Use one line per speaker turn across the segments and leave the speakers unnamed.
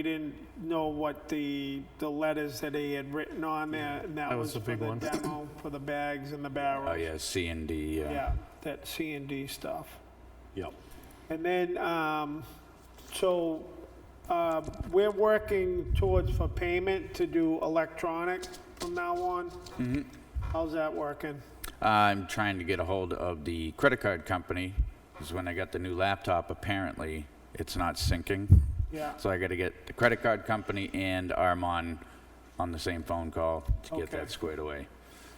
We didn't know what the, the letters that he had written on there, and that
That was
was
the
for
big
the
one.
demo, for the bags and the
Oh,
barrels.
yeah, C and D, yeah.
Yeah, that C and D stuff.
Yep.
And then, um, so, uh, we're working towards for payment to do electronic from now on. How's that working?
I'm trying to get a hold of the credit card company, because when I got the new laptop, apparently it's not syncing.
Yeah.
So I got to get the credit card company and Armon on the same phone call to get
Okay.
that squared away.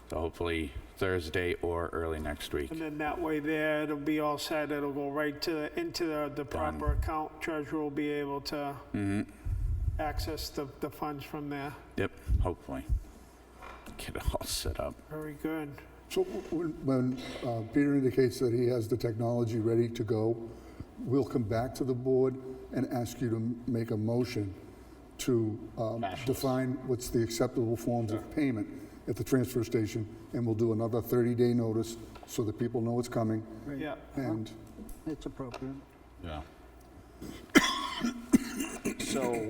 So hopefully Thursday or early next week.
And then that way there, it'll be all set, it'll go right to, into the, the proper account. Treasurer will be able to
Mm-hmm.
access the, the funds from there.
Yep, hopefully. Get it all set up.
Very good.
So when, when uh, Peter indicates that he has the technology ready to go, we'll come back to the board and ask you to m- make a motion to um, define what's the acceptable forms of payment at the transfer station, and we'll do another 30-day notice so that people know it's coming,
Yeah.
and
It's appropriate.
Yeah.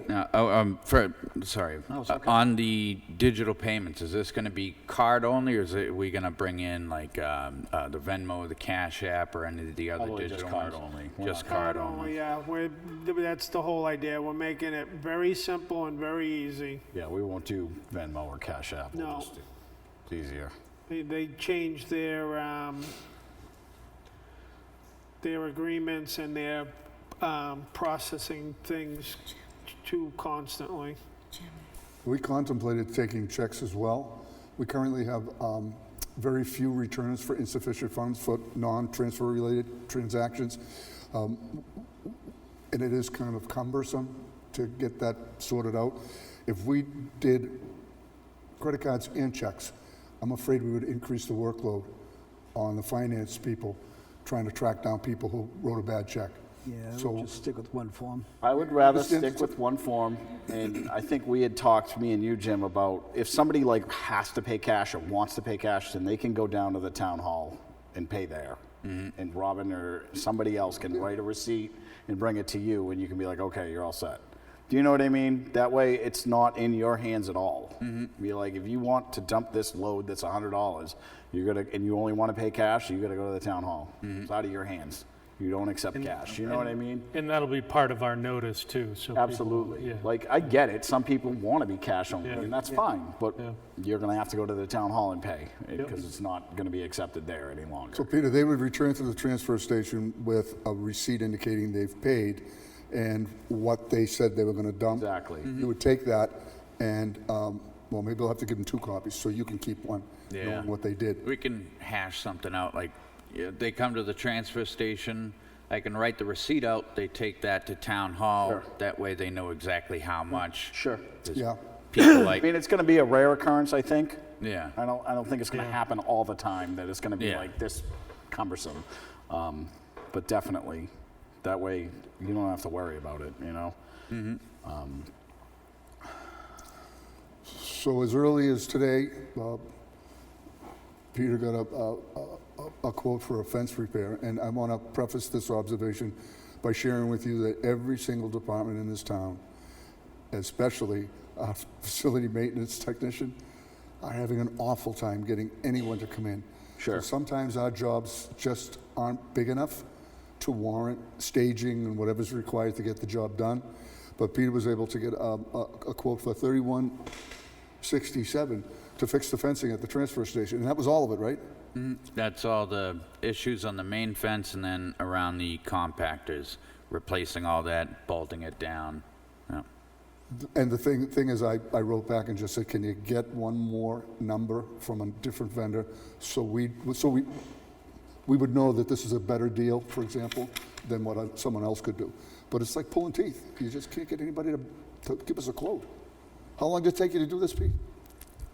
Now, oh, um, for, sorry. Uh, On the digital payments, is this gonna be card only, or is it, we gonna bring in like, um, uh, the Venmo, the Cash App, or any of the other
Probably just
digital
card
ones?
only. We're
Just
not-
card
Not
only.
Oh, Yeah, we're, that's the whole idea. We're making it very simple and very easy.
Yeah, we won't do Venmo or Cash App. We'll
No.
just do- It's easier.
They, they changed their, um, their agreements and their, um, processing things too constantly.
we contemplated taking checks as well. We currently have um, very few returns for insufficient funds for non-transfer related transactions. Um, and it is kind of cumbersome to get that sorted out. If we did credit cards and checks, I'm afraid we would increase the workload on the finance people trying to track down people who wrote a bad check.
Yeah,
So-
we'll just stick with one form.
I would rather
It's- it's-
stick with one form, and I think we had talked, me and you, Jim, about if somebody like has to pay cash or wants to pay cash, then they can go down to the town hall and pay there. And Robin or somebody else can write a receipt and bring it to you, and you can be like, okay, you're all set. Do you know what I mean? That way, it's not in your hands at all. Be like, if you want to dump this load that's hundred dollars, you're gonna, and you only want to pay cash, you gotta go to the town hall. It's out of your hands. You don't accept cash. You know what I mean?
And that'll be part of our notice too, so. people-
Absolutely.
yeah.
Like, I get it, some people want to be cash only,
Yeah.
and that's fine, but
Yeah.
you're going to have to go to the town hall and pay, because it's not going to be accepted there any
So
longer.
Peter, they would return to the transfer station with a receipt indicating they've paid and what they said they were going to dump.
Exactly.
You would take that and, um, well, maybe they'll have to give them two copies, so you can keep one,
Yeah.
knowing what they did.
We can hash something out, like, yeah, they come to the transfer station, I can write the receipt out, they take that to town hall,
Sure.
that way they know exactly how much.
Sure.
There's
Yeah.
People
I mean,
like,
it's going to be a rare occurrence, I think.
yeah.
I don't, I don't think it's going to happen all the time, that it's going to be
Yeah.
like this cumbersome. Um, But definitely, that way, you don't have to worry about it, you know?
So as early as today, uh, Peter got a- a, a- a quote for a fence repair, and I want to preface this observation by sharing with you that every single department in this town, especially our facility maintenance technician, are having an awful time getting anyone to come in.
Sure.
So Sometimes our jobs just aren't big enough to warrant staging and whatever's required to get the job done. But Peter was able to get um, a a quote for 3167 to fix the fencing at the transfer station, and that was all of it, right?
That's all the issues on the main fence and then around the compactors, replacing all that, bolting it down. Yeah.
And the thing, thing is, I, I wrote back and just said, can you get one more number from a different vendor? So we, so we, we would know that this is a better deal, for example, than what uh, someone else could do. But it's like pulling teeth. You just can't get anybody to, to give us a quote. How long did it take you to do this, Pete?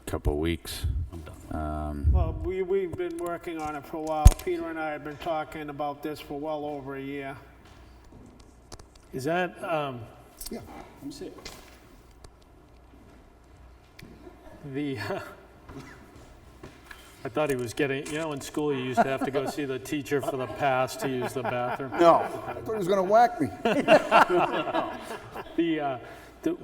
Couple weeks.
Well, we, we've been working on it for a while. Peter and I have been talking about this for well over a year.
Is that, um,
Yeah.
the, uh, I thought he was getting, you know, in school, you used to have to go see the teacher for the pass to use the bathroom.
No,
I thought he was going to whack me.
The, uh, the-